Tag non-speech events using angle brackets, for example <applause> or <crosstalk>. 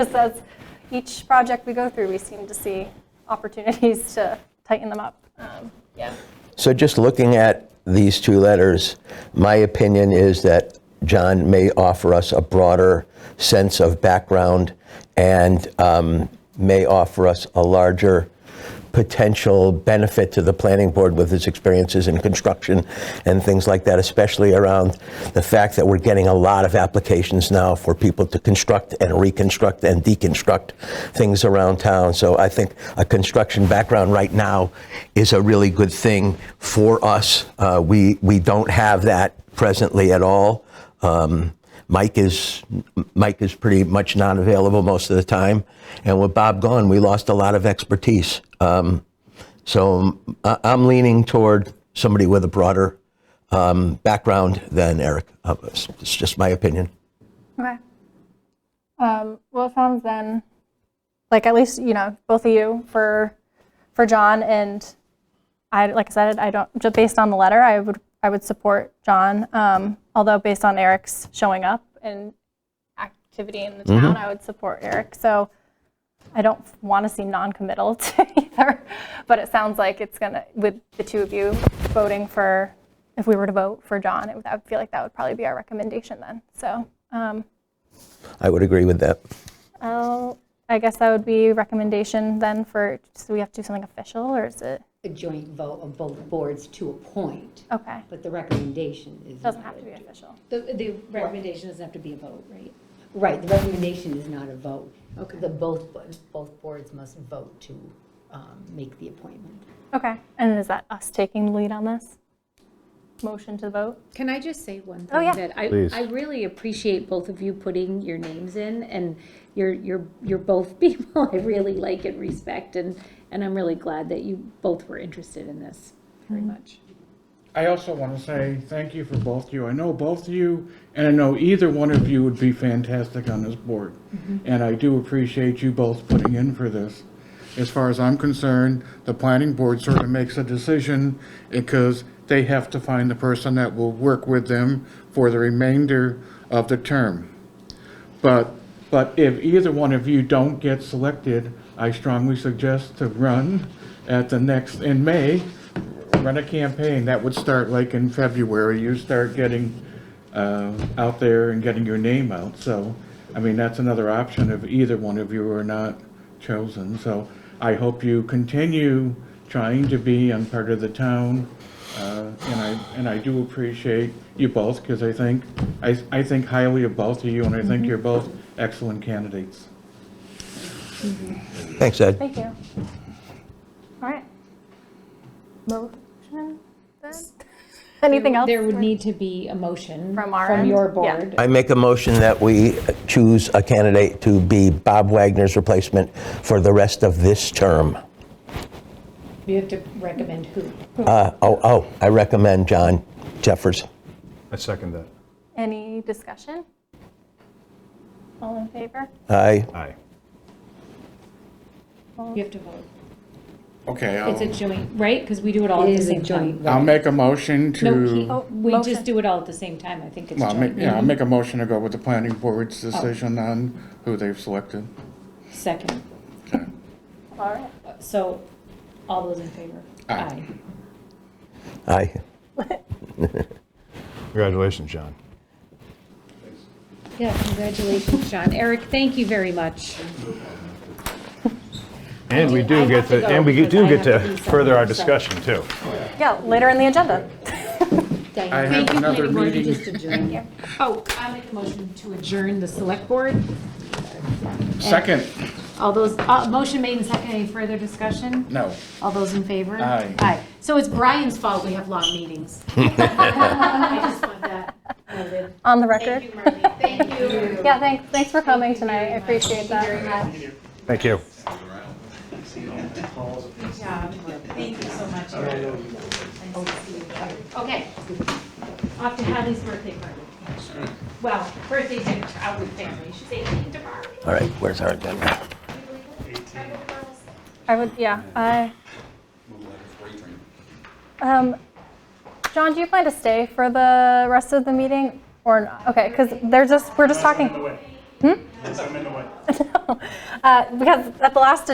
Just as each project we go through, we seem to see opportunities <laughs> to tighten them up. Um, Yeah. So just looking at these two letters, my opinion is that John may offer us a broader sense of background and um, may offer us a larger potential benefit to the planning board with his experiences in construction and things like that, especially around the fact that we're getting a lot of applications now for people to construct and reconstruct and deconstruct things around town. So I think a construction background right now is a really good thing for us. Uh, we, we don't have that presently at all. Um, Mike is Mike is pretty much not available most of the time, and with Bob gone, we lost a lot of expertise. Um, so I- I'm leaning toward somebody with a broader um, background than Eric. Uh, It's it's just my opinion. Okay. Um, Well, it sounds then, like at least, you know, both of you for, for John and I, like I said, I don't, just based on the letter, I would, I would support John. Um, Although based on Eric's showing up and activity in the town, I would support Eric. So I don't want to seem non-committal <laughs> to either, but it sounds like it's gonna, with the two of you voting for, if we were to vote for John, it would- I would feel like that would probably be our recommendation then. So, um, I would agree with that. I'll, I guess that would be recommendation then for, so we have to do something official, or is it, a joint vote of both boards to appoint, okay, but the recommendation is. doesn't not have to a- be official. The, the recommendation doesn't have to be a vote, right? Right, the recommendation is not a vote. Okay. The both, both boards must vote to um, make the appointment. Okay, and is that us taking the lead on this? Motion to vote? Can I just say one thing? Oh, yeah. That I, Please. I really appreciate both of you putting your names in, and you're, you're, you're both <laughs> people I really like and respect, and, and I'm really glad that you both were interested in this very Mm-hmm. much. I also want to say thank you for both of you. I know both of you, and I know either one of you would be fantastic on this board. And I do appreciate you both putting in for this. As far as I'm concerned, the planning board sort of makes a decision because they have to find the person that will work with them for the remainder of the term. But, but if either one of you don't get selected, I strongly suggest to run at the next, in May, run a campaign. That would start like in February. You start getting uh, out there and getting your name out. So, I mean, that's another option if either one of you are not chosen. So I hope you continue trying to be on part of the town. Uh, And I, and I do appreciate you both, because I think, I, I think highly of both of you, and I Mm-hmm. think you're both excellent candidates. Thanks, Ed. Thank you. All right. Motion then? Anything else? There would need to be a motion From our from end? your Yeah. board. I make a motion that we choose a candidate to be Bob Wagner's replacement for the rest of this term. You have to recommend who. Uh, oh, oh, I recommend John Jeffers. I second that. Any discussion? All in favor? Aye. Aye. You have to vote. Okay, It's a I'll, joint, right? Because we do it all It at the is a same joint time. vote. I'll make a No, motion he- Mm-hmm. to, we Oh, motion. just do it all at the same time. I think it's well, I'll make- joint. yeah, I'll make a motion to go with the planning board's Oh. decision on who they've selected. Second. Okay. All right. So, all those in favor? Aye. Aye. Congratulations, John. Yeah, congratulations, John. Eric, thank you very much. And we I do have get to go to, and we because do I have get to to do something, further our so- discussion, too. <laughs> Yeah, later in the agenda. I Diane. have another meeting. Oh, I make a motion to adjourn the select board. Second, All those, uh, motion made and second. Any further discussion? no. All those in favor? Aye. Aye. So it's Brian's fault we have long <laughs> meetings. <laughs> I just want that noted. On the record. Thank you, Marty. Thank you. <laughs> Yeah, thanks, thanks for coming tonight. I appreciate that. Thank you very much. Thank you. Yeah, thank you so much. Eric. Nice to see you. Okay, off to Hadley's birthday party. Well, birthday dinner out with family, she's 18 tomorrow. All right, where's our agenda? I would, yeah, I. Um, John, do you plan to stay for the rest <laughs> of the meeting or not? Okay, because they're just, we're just talking. Hmm? Uh, Because at the last